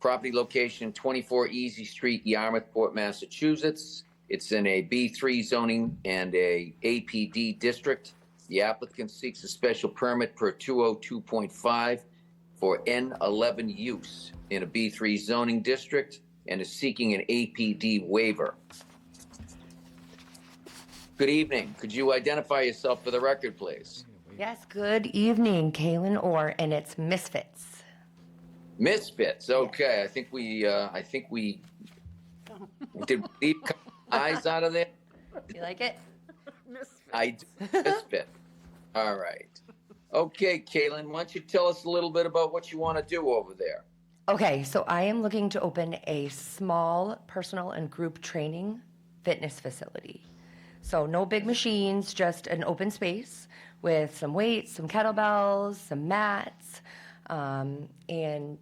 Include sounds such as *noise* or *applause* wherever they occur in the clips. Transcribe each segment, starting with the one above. Property location 24 Easy Street, Yarmouthport, Massachusetts. It's in a B3 zoning and a APD district. The applicant seeks a special permit per 202.5 for N11 use in a B3 zoning district and is seeking an APD waiver. Good evening. Could you identify yourself for the record, please? Yes, good evening, Kaylin Orr, and it's Misfits. Misfits. Okay, I think we, uh, I think we did. We leave eyes out of there. You like it? I do. misfit. All right. Okay, Caitlin, why don't you tell us a little bit about what you want to do over there? Okay, so I am looking to open a small personal and group training fitness facility. So, no big machines, just an open space with some weights, some kettlebells, some mats, um, and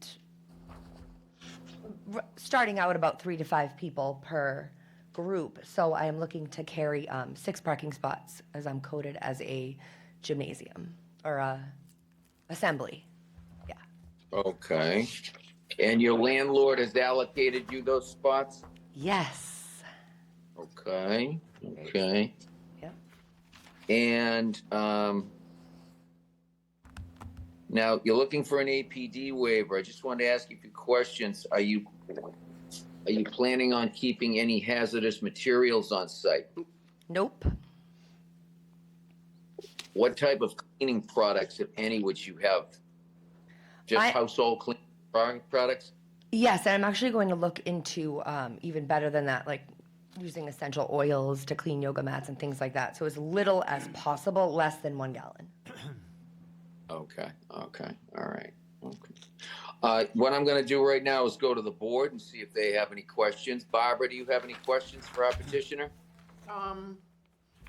r- starting out about three to five people per group. So, I am looking to carry um, six parking spots as I'm coded as a gymnasium or a assembly. Yeah. Okay. And your landlord has allocated you those spots? Yes. Okay. Okay. Yep. And um, now you're looking for an APD waiver. I just wanted to ask you a few questions. Are you are you planning on keeping any hazardous materials on site? Nope. What type of cleaning products, if any, would you have? Just I- household clean pro- products? Yes, and I'm actually going to look into um, even better than that, like using essential oils to clean yoga mats and things like that. So as little as possible, less than one gallon. Okay, okay, all right. Okay. Uh, what I'm going to do right now is go to the board and see if they have any questions. Barbara, do you have any questions for our petitioner? Um,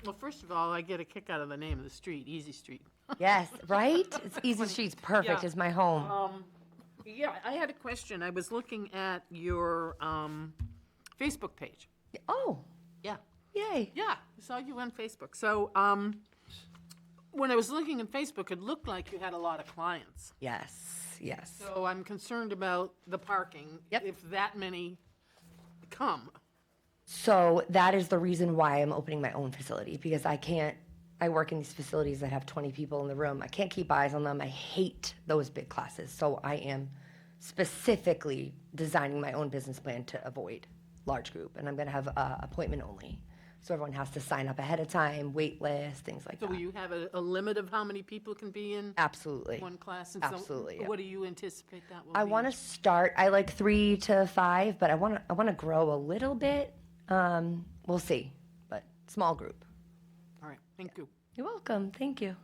well, first of all, I get a kick out of the name of the street, Easy Street. Yes, right? It's Easy Street's perfect Yeah. as my home. Um, yeah, I had a question. I was looking at your, um, Facebook page. Oh, Yeah. yay. Yeah, I saw you on Facebook. So, um, when I was looking at Facebook, it looked like you had a lot of clients. Yes, yes. So I'm concerned about the parking. Yep. If that many come. So that is the reason why I'm opening my own facility because I can't. I work in these facilities that have 20 people in the room. I can't keep eyes on them. I hate those big classes. So I am specifically designing my own business plan to avoid large group, and I'm going to have uh, appointment only. So everyone has to sign up ahead of time, wait list, things like So will that. you have a, a limit of how many people can be in Absolutely. one class? And so Absolutely, yeah. What do you anticipate that will be? I want to start. I like three to five, but I want to. I want to grow a little bit. Um, we'll see, but small group. All right, thank you. You're welcome. Thank you.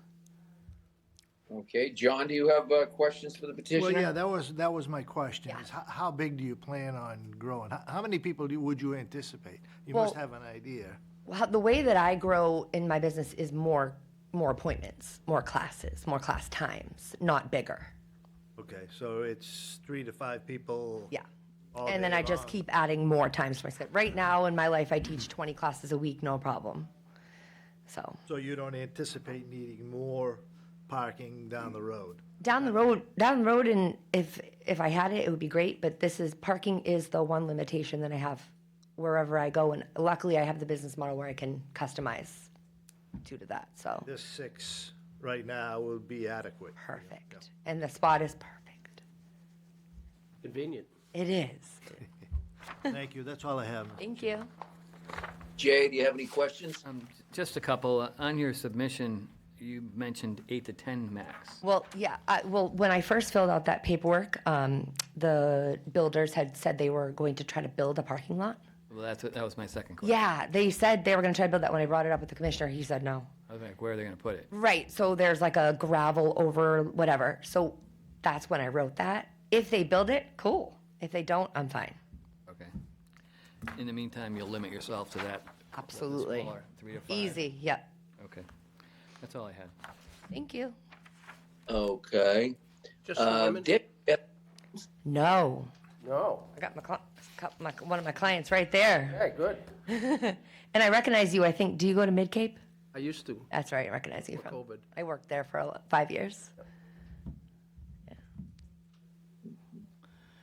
Okay, John, do you have uh, questions for the Well, yeah, petitioner? that was, that was my question, is how, how big do you plan on growing? How, how many people do, would you anticipate? You must Well- have an idea. Well, the way that I grow in my business is more more appointments, more classes, more class times, not bigger. Okay, so it's three to five people? Yeah. All and then day I just long. keep adding more times to my schedule. Right now in my life I *clears throat* teach 20 classes a week, no problem. So, So you don't anticipate needing more parking down the road? down the road, down the road and if if I had it it would be great, but this is parking is the one limitation that I have wherever I go and luckily I have the business model where I can customize due to that. So, This six right now would be adequate. perfect. And the spot is perfect. Convenient. It is. Thank you, that's all I have. Thank you. Jay, do you have any questions? Um, Um, Just a couple, uh, on your submission, you mentioned eight to 10 max. Well, yeah, I, well, when I first filled out that paperwork, um, the builders had said they were going to try to build a parking lot. Well, that's, what- that was my second question. Yeah, they said they were going to try to build that. When I brought it up with the commissioner, he said no. I was like, where are they going to put it? Right, so there's like a gravel over whatever. So that's when I wrote that. If they build it, cool. If they don't, I'm fine. Okay. In the meantime, you'll limit yourself to that. Absolutely. smaller, Three to five. Easy, yep. Okay. That's all I had. Thank you. Okay. Just the Uh, women? Dick, yeah, No, No. I got my, cli- got my one of my clients right there. Okay, good. And I recognize you. I think. Do you go to Mid Cape? I used to. That's right. I recognize you from COVID. I worked there for a lo- five years.